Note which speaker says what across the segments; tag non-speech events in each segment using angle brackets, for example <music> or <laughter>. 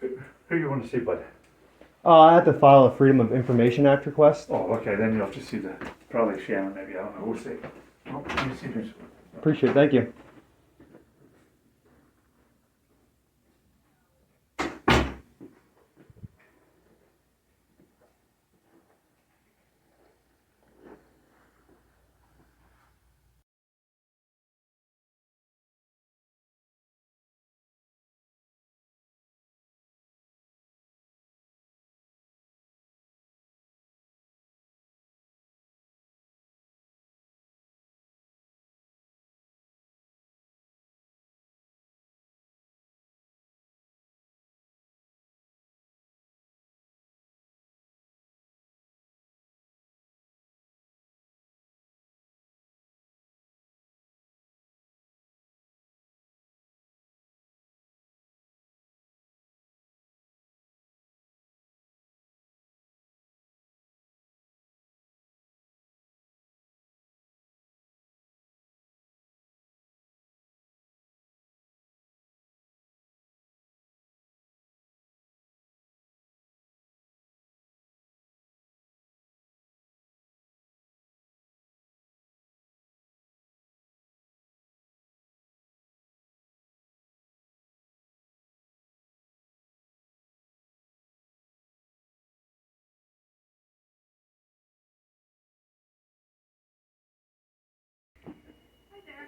Speaker 1: Who you want to see, bud?
Speaker 2: Uh, I have to file a Freedom of Information Act request.
Speaker 1: Oh, okay, then you'll have to see the, probably Sharon, maybe, I don't know, we'll see. Oh, let me see who's-
Speaker 2: Appreciate it. Thank you.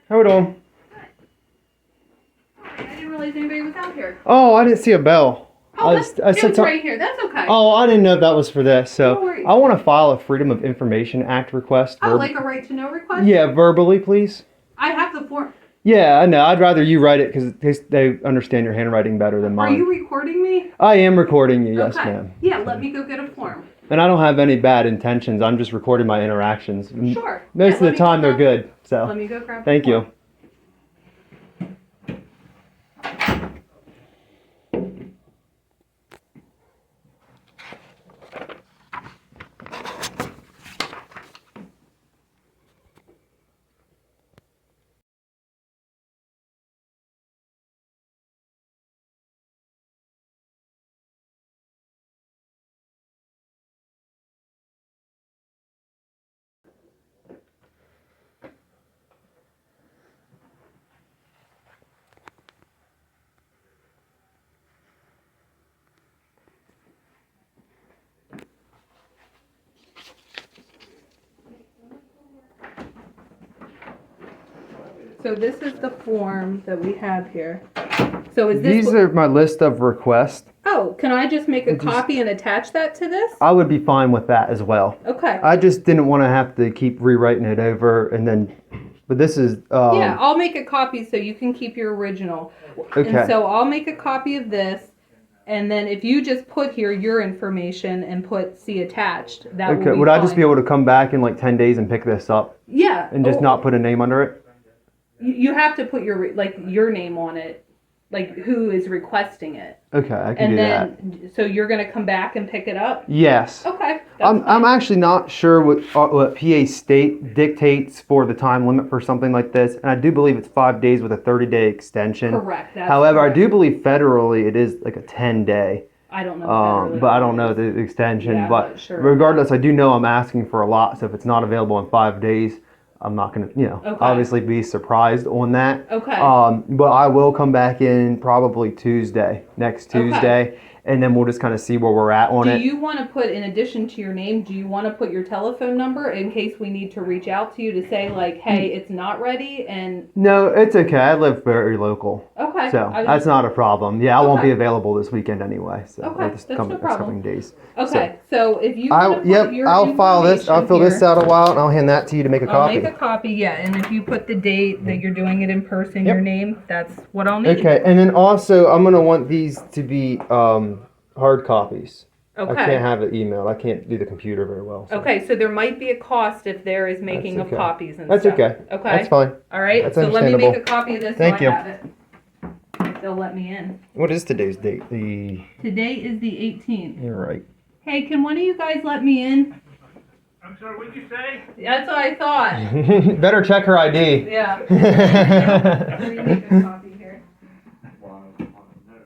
Speaker 2: How we doing?
Speaker 3: Sorry, I didn't realize anybody was out here.
Speaker 2: Oh, I didn't see a bell.
Speaker 3: Oh,
Speaker 2: I,
Speaker 3: that's,
Speaker 2: s- I said
Speaker 3: Jim's
Speaker 2: something.
Speaker 3: right here. That's okay.
Speaker 2: Oh, I didn't know that was for this. So
Speaker 3: No worries.
Speaker 2: I want to file a Freedom of Information Act request.
Speaker 3: I
Speaker 2: verb-
Speaker 3: would like a right to know request.
Speaker 2: yeah, verbally, please.
Speaker 3: I have the form.
Speaker 2: Yeah, I know. I'd rather you write it because they understand your handwriting better than
Speaker 3: Are
Speaker 2: mine.
Speaker 3: you recording me?
Speaker 2: I am recording you, yes,
Speaker 3: okay.
Speaker 2: ma'am.
Speaker 3: Yeah, let me go get a form.
Speaker 2: And I don't have any bad intentions. I'm just recording my interactions. M-
Speaker 3: Sure.
Speaker 2: Mm, Most
Speaker 3: Yeah,
Speaker 2: of
Speaker 3: let
Speaker 2: the
Speaker 3: me
Speaker 2: time,
Speaker 3: go
Speaker 2: they're
Speaker 3: grab-
Speaker 2: good. So
Speaker 3: Let me go grab.
Speaker 2: thank
Speaker 3: the
Speaker 2: you.
Speaker 3: form. So this is the form that we have here. So is this?
Speaker 2: These are my list of requests.
Speaker 3: oh, can I just make a
Speaker 2: Just-
Speaker 3: copy and attach that to this?
Speaker 2: I would be fine with that as well.
Speaker 3: Okay.
Speaker 2: I just didn't want to have to keep rewriting it over and then, but this is, um,
Speaker 3: yeah, I'll make a copy so you can keep your original.
Speaker 2: okay.
Speaker 3: And so I'll make a copy of this, and then if you just put here your information and put see attached, that
Speaker 2: okay.
Speaker 3: will be
Speaker 2: Would I just
Speaker 3: fine.
Speaker 2: be able to come back in like 10 days and pick this up
Speaker 3: Yeah.
Speaker 2: and just
Speaker 3: or-
Speaker 2: not put a name under it?
Speaker 3: You you have to put your re- like your name on it, like who is requesting it,
Speaker 2: Okay, I can
Speaker 3: and
Speaker 2: do that.
Speaker 3: then so you're gonna come back and pick it up.
Speaker 2: Yes.
Speaker 3: Okay. that's
Speaker 2: I'm, I'm actually not sure what, uh, what PA state dictates for the time limit for something like this, and I do believe it's five days with a 30 day extension.
Speaker 3: correct. That's
Speaker 2: However, I do
Speaker 3: correct.
Speaker 2: believe federally it is like a 10 day,
Speaker 3: I don't
Speaker 2: um,
Speaker 3: know. federally.
Speaker 2: but I don't know the extension.
Speaker 3: Yeah, I'm
Speaker 2: but
Speaker 3: not sure.
Speaker 2: regardless, I do know I'm asking for a lot, so if it's not available in five days, I'm not going to, you know,
Speaker 3: Okay.
Speaker 2: obviously be surprised on that.
Speaker 3: Okay.
Speaker 2: Um, but I will come back in probably Tuesday, next
Speaker 3: Okay.
Speaker 2: Tuesday, and then we'll just kind of see where we're at on
Speaker 3: do
Speaker 2: it.
Speaker 3: you want to put in addition to your name? Do you want to put your telephone number in case we need to reach out to you to say like,
Speaker 2: Hmm.
Speaker 3: hey, it's not ready, and
Speaker 2: No, it's okay. I live very local,
Speaker 3: okay,
Speaker 2: so
Speaker 3: I was
Speaker 2: that's not a problem. Yeah, I won't
Speaker 3: Okay.
Speaker 2: be available this weekend anyway. So
Speaker 3: Okay,
Speaker 2: or this
Speaker 3: that's
Speaker 2: coming,
Speaker 3: no
Speaker 2: this
Speaker 3: problem.
Speaker 2: coming days.
Speaker 3: Okay, so if you wanna
Speaker 2: I
Speaker 3: put
Speaker 2: yep.
Speaker 3: your
Speaker 2: I'll file this. I'll fill
Speaker 3: information
Speaker 2: this
Speaker 3: here-
Speaker 2: out a while, and I'll hand that to you to make a
Speaker 3: I'll
Speaker 2: copy. Mm-hmm.
Speaker 3: make a copy, yeah, and if you put the date that you're doing it in person,
Speaker 2: Yep.
Speaker 3: your name, that's what I'll need.
Speaker 2: okay, and then also I'm gonna want these to be um, hard copies. I
Speaker 3: Okay.
Speaker 2: can't have it emailed. I can't do the computer very well. so
Speaker 3: Okay, so there might be a cost if there is making
Speaker 2: That's
Speaker 3: of
Speaker 2: okay.
Speaker 3: copies and
Speaker 2: That's
Speaker 3: stuff.
Speaker 2: okay. That's
Speaker 3: Okay,
Speaker 2: fine.
Speaker 3: all right,
Speaker 2: That's
Speaker 3: so let me make a
Speaker 2: understandable.
Speaker 3: copy of this so I
Speaker 2: Thank you.
Speaker 3: have it. If They'll let me in.
Speaker 2: What is today's date? The
Speaker 3: Today is the eighteenth.
Speaker 2: you're right. <laughs>
Speaker 3: Hey, can one of you guys let me in?
Speaker 4: I'm sorry, what'd you
Speaker 1: <laughs>
Speaker 4: say?
Speaker 2: <laughs>
Speaker 3: That's what I thought, <laughs>
Speaker 2: Better check her ID.
Speaker 3: yeah.
Speaker 2: okay.